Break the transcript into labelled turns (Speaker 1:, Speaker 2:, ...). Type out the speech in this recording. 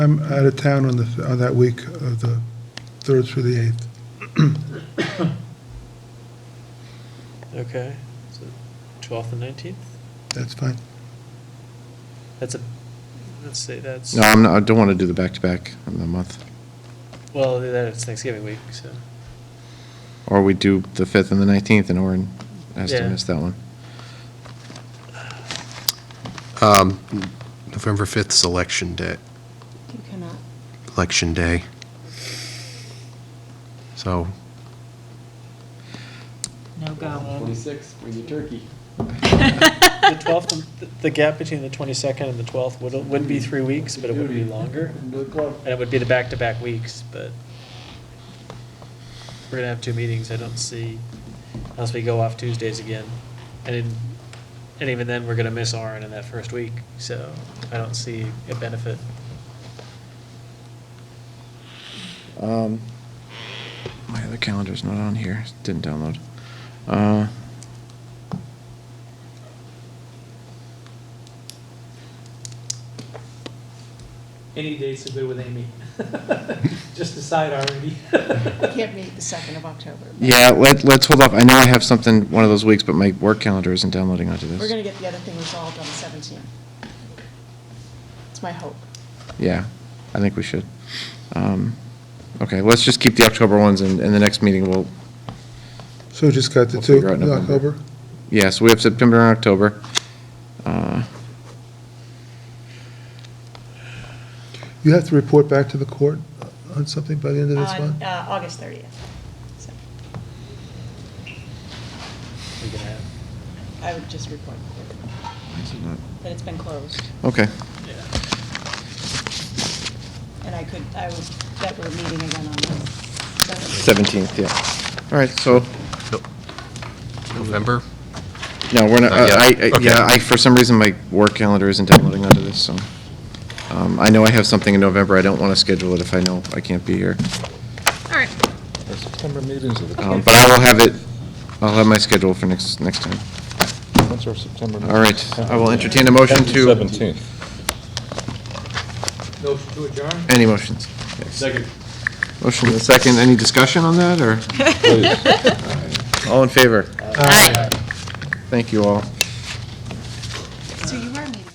Speaker 1: I'm out of town on the, on that week of the 3rd through the 8th.
Speaker 2: Okay, so 12th and 19th?
Speaker 1: That's fine.
Speaker 2: That's a, let's say that's,
Speaker 3: No, I'm not, I don't want to do the back-to-back in the month.
Speaker 2: well, that's Thanksgiving week, so,
Speaker 3: Or we do the 5th and the 19th, and Orin has to
Speaker 2: Yeah.
Speaker 3: miss that one.
Speaker 4: Um, November 5th is election day,
Speaker 5: You cannot.
Speaker 4: election day. So
Speaker 6: No go.
Speaker 7: Twenty-six, bring your turkey.
Speaker 2: Um, the 12th, and th- the gap between the 22nd and the 12th would, would be three weeks, but it would be longer,
Speaker 7: Into the club.
Speaker 2: and it would be the back-to-back weeks, but we're gonna have two meetings, I don't see, unless we go off Tuesdays again. And, in- and even then, we're gonna miss Orin in that first week, so I don't see a benefit.
Speaker 3: Um, My other calendar's not on here, didn't download. Uh,
Speaker 8: Any dates are good with Amy. Just decide already.
Speaker 5: You can't meet the 2nd of October. but
Speaker 3: Yeah, let, let's hold off, I know I have something one of those weeks, but my work calendar isn't downloading onto
Speaker 5: We're
Speaker 3: this.
Speaker 5: going to get the other thing resolved on the 17th. It's my hope.
Speaker 3: Yeah, I think we should. Um, Okay, let's just keep the October ones, and, and the next meeting will,
Speaker 1: So just got the
Speaker 3: We'll
Speaker 1: two,
Speaker 3: figure out
Speaker 1: in
Speaker 3: November.
Speaker 1: October?
Speaker 3: yeah, so we have September and October. Uh,
Speaker 1: You have to report back to the court on something by the end of this
Speaker 5: On
Speaker 1: month?
Speaker 5: uh, August 30th. So
Speaker 2: We can have,
Speaker 5: I would just report that it's been closed.
Speaker 3: Okay,
Speaker 2: yeah.
Speaker 5: And I could, I would, that we're meeting again on the 17th.
Speaker 3: 17th, yeah. All right, so
Speaker 4: November,
Speaker 3: No, we're not, uh,
Speaker 4: Not yet.
Speaker 3: I, I-
Speaker 4: Okay.
Speaker 3: yeah, I, for some reason, my work calendar isn't downloading onto this, so. um, I know I have something in November, I don't want to schedule it if I know I can't be here.
Speaker 6: All right.
Speaker 9: The September meetings are the,
Speaker 3: Um, But I will have it, I'll have my schedule for next, next time.
Speaker 9: when's our September meeting?
Speaker 3: All right, I will entertain a motion to,
Speaker 9: 17th.
Speaker 7: Motion to adjourn?
Speaker 3: any motions?
Speaker 7: Second.
Speaker 3: Motion and a second, any discussion on that, or? All in favor?
Speaker 6: Aye.
Speaker 3: Thank you all.